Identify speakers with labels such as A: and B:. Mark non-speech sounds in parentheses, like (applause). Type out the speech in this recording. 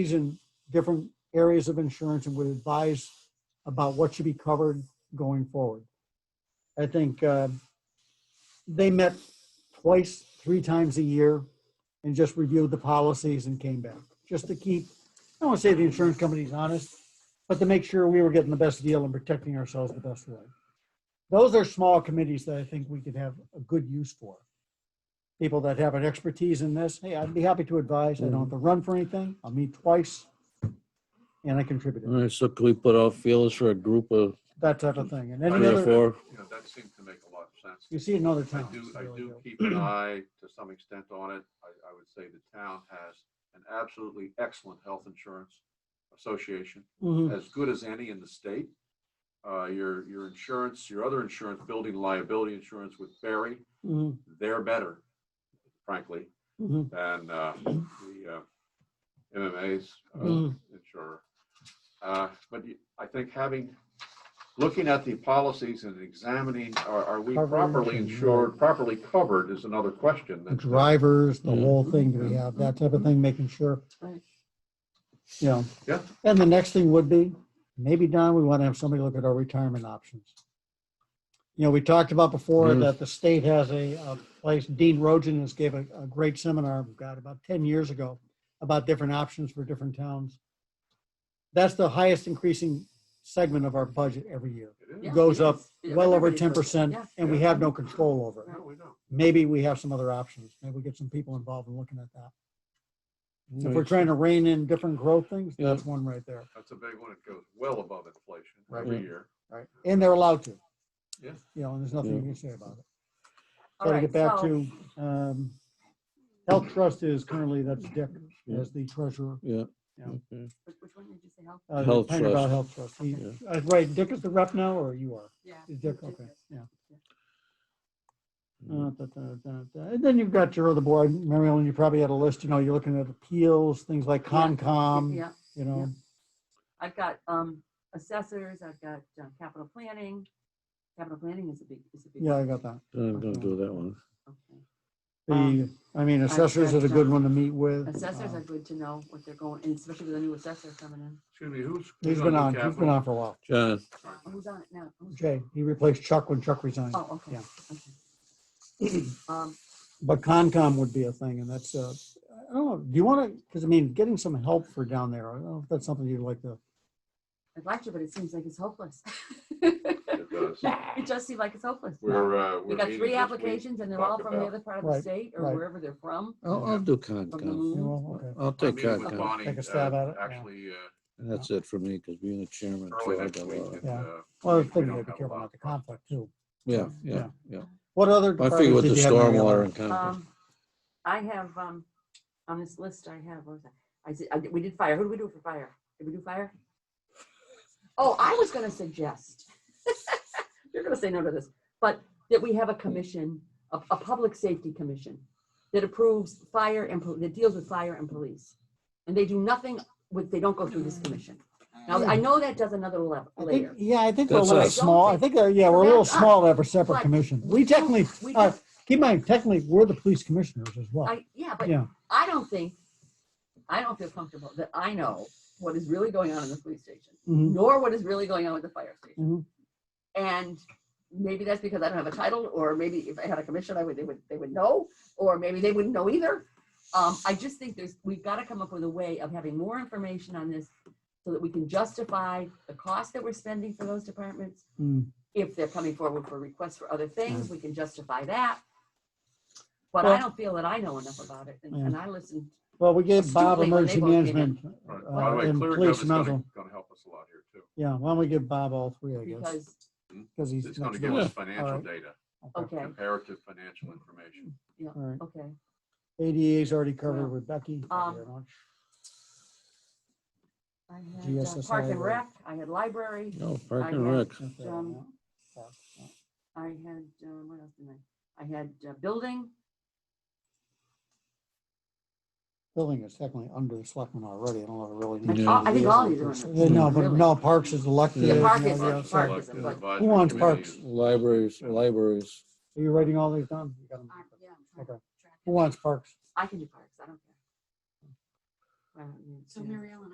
A: these in different areas of insurance and would advise about what should be covered going forward. I think uh, they met twice, three times a year and just reviewed the policies and came back, just to keep, I don't want to say the insurance companies honest, but to make sure we were getting the best deal and protecting ourselves the best way. Those are small committees that I think we could have a good use for. People that have an expertise in this, hey, I'd be happy to advise. I don't have to run for anything. I'll meet twice. And I
B: All
A: contributed,
B: right, so could we put out feelers for a group of
A: that type of thing. And
B: three
A: any
B: or
A: other,
B: four?
C: Yeah, that seems to make a lot of sense.
A: you see it in other
C: I
A: towns.
C: do, I
A: really
C: do keep an eye to some extent on it. I, I would say the town has an absolutely excellent health insurance association,
A: Mhm.
C: as good as any in the state. Uh, your, your insurance, your other insurance, building liability insurance with Barry,
A: Mhm.
C: they're better, frankly,
A: Mhm.
C: than, uh, the, uh, MMA's uh,
A: Mhm.
C: insurer. Uh, but you- I think having, looking at the policies and examining, are, are we
A: Covering
C: properly
A: things,
C: insured, properly covered is another question.
A: the
C: that-
A: drivers, the
B: Mhm.
A: whole thing, do we have that type of thing, making sure.
C: Right.
A: You know.
C: Yeah.
A: And the next thing would be, maybe Don, we want to have somebody look at our retirement options. You know, we talked about before
B: Mm.
A: that the state has a, a place, Dean Rogen has gave a, a great seminar, God, about ten years ago, about different options for different towns. That's the highest increasing segment of our budget every year.
C: uh, It is.
D: Yeah,
A: Goes
D: it
A: up
D: is. Yeah,
A: well over
D: everybody
A: ten
D: goes up.
A: percent,
D: Yeah.
A: and we have no control over it
C: No, we don't.
A: maybe we have some other options. Maybe we get some people involved in looking at that. If we're
B: Right.
A: trying to rein in different growth things,
B: Yeah.
A: that's one right there.
C: That's a big one. It goes well above inflation
A: Right.
C: every year.
A: Right. And they're allowed to.
C: Yeah.
A: You know, and there's nothing you
B: Yeah.
A: can say about it. So
D: All
A: to
D: right,
A: get back
D: so
A: to, um, Health Trust is currently, that's Dick
B: Yeah.
A: as the treasurer.
B: Yeah.
A: Yeah.
B: okay.
D: which which one did you say, health?
A: uh,
B: Health
A: Pioneer Valley
B: Trust.
A: Health Trust. He-
B: Yeah.
A: uh, Right, Dick is the rep now, or you are?
D: Yeah.
A: Is Dick,
D: Dick
A: okay,
D: is.
A: yeah.
B: Mm.
A: Uh, da, da, da, da. And then you've got your other board, Mary Ellen, you probably had a list, you know, you're looking at appeals, things like
D: Yeah.
A: Concom,
D: Yeah,
A: you know.
D: I've got um assessors, I've got um, capital planning. Capital planning is a big, is a big.
A: Yeah, I got that.
B: I'm gonna do that one.
D: Okay.
A: The,
D: Um,
A: I mean, assessors is a good one to meet with.
D: Assessors are
A: Um,
D: good to know what they're going, and especially with a new assessor coming in.
C: Excuse me, who's? who's
A: He's been
C: the
A: on, he's been
C: capital?
A: on for a while.
B: John,
D: Uh, Who's on it now? Who's-
A: Jay, he replaced Chuck when Chuck resigned.
D: Oh, okay.
A: Yeah.
D: okay. Um,
A: But Concom would be a thing, and that's, uh, I don't know, do you want to, because I mean, getting some help for down there, I don't know if that's something you'd like to,
D: I'd like to, but it seems like it's hopeless. (laughs)
C: It does.
D: It just seems like it's hopeless.
C: We're, uh, we're.
D: We got
C: meeting
D: three
C: this week.
D: applications and they're all
C: talked
D: from the
C: about.
D: other part of
A: Right,
D: the state or
A: right.
D: wherever they're from.
B: I'll, I'll do con.
D: From the
B: con.
A: you
D: move.
A: know, okay.
B: I'll
C: I'm
B: take
C: meeting
B: con.
C: with
B: con.
C: Bonnie,
A: Take a
C: uh,
A: stab at it, yeah.
C: Actually, uh,
B: That's it for me, because being the chairman.
C: early
B: I
C: next
B: got a
C: week.
B: lot.
C: and,
A: Yeah.
C: uh,
A: Well, I
C: we- we
A: think you
C: don't
A: have to be
C: have a
A: careful
C: lot
A: not to
C: of problems.
A: conflict too.
B: Yeah, yeah, yeah.
A: What other?
B: I figure with
A: departments
B: the
A: did you have, Mary
B: stormwater
A: Ellen?
B: and con.
D: Um, I have, um, on this list, I have, what was that? I said, I did- we did fire. Who did we do for fire? Did we do fire? Oh, I was gonna suggest. (laughs) You're gonna say no to this, but that we have a commission, a, a public safety commission that approves fire and, pol- that deals with fire and police. And they do nothing with, they don't go through this commission. Now, I know that does another level
A: I think,
D: layer.
A: yeah, I think we're a
B: That's
A: little
B: us.
A: small. I think, uh, yeah, we're a little
D: That's us.
A: small to have a separate
D: But-
A: commission. We technically,
D: We
A: uh,
D: just-
A: keep in mind, technically, we're the police commissioners as well.
D: I, yeah, but
A: Yeah,
D: I don't think, I don't feel comfortable that I know what is really going on in the police station,
A: mhm,
D: nor what is really going on with the fire station.
A: mhm.
D: And maybe that's because I don't have a title, or maybe if I had a commission, I would, they would, they would know, or maybe they wouldn't know either. Um, I just think there's, we've got to come up with a way of having more information on this so that we can justify the cost that we're spending for those departments.
A: Mm.
D: If they're coming forward for requests for other things, we can justify that. But
A: Well-
D: I don't feel that I know enough about it, and- and I listened
A: Well, we gave Bob
D: Astutely, when
A: emergency
D: they both came in.
A: management.
C: Right.
A: uh,
C: By the way,
A: and
C: ClearGov
A: police
C: is gonna,
A: mental.
C: gonna help us a lot here too.
A: Yeah, why don't we give Bob all three, I guess,
D: because,
A: because he's.
C: It's gonna
A: next
C: give
A: door.
C: us financial
A: Alright.
C: data,
A: Okay.
D: okay,
C: comparative financial information.
A: All right.
D: okay.
A: ADA's already covered
D: Well,
A: with Becky.
D: um,
A: Very much.
D: I had uh,
A: GSSI
D: Park and
A: library.
D: Rec, I had library,
B: No, park
D: I
B: and rec.
D: guess.
A: Not bad,
D: um,
A: yeah. Yeah.
D: I had, uh, what else did I, I had uh, building,
A: Building is technically under the selectmen already. I don't know if it really.
D: I-
A: needs
B: I-
A: to
B: I
A: be
B: think
A: as
D: all
A: a
D: these are
A: person.
D: under-
A: No, but
D: Really?
A: no, Parks is elected.
B: Yeah,
A: and
D: Park
A: all
D: is-
A: the other
D: Park
A: stuff.
D: is-
C: Selective
D: but-
C: advisory
A: Who wants
C: committee
A: parks?
C: is-
B: Libraries, libraries.
A: Are you writing all these down? You got 'em.
D: I- yeah, Uh, I'm trying to
A: Okay.
D: track
A: Who
D: it.
A: wants Parks?
D: I can do parks, I don't care. Uh,
E: Well, yeah,
D: So
E: yeah.
D: Mary Ellen,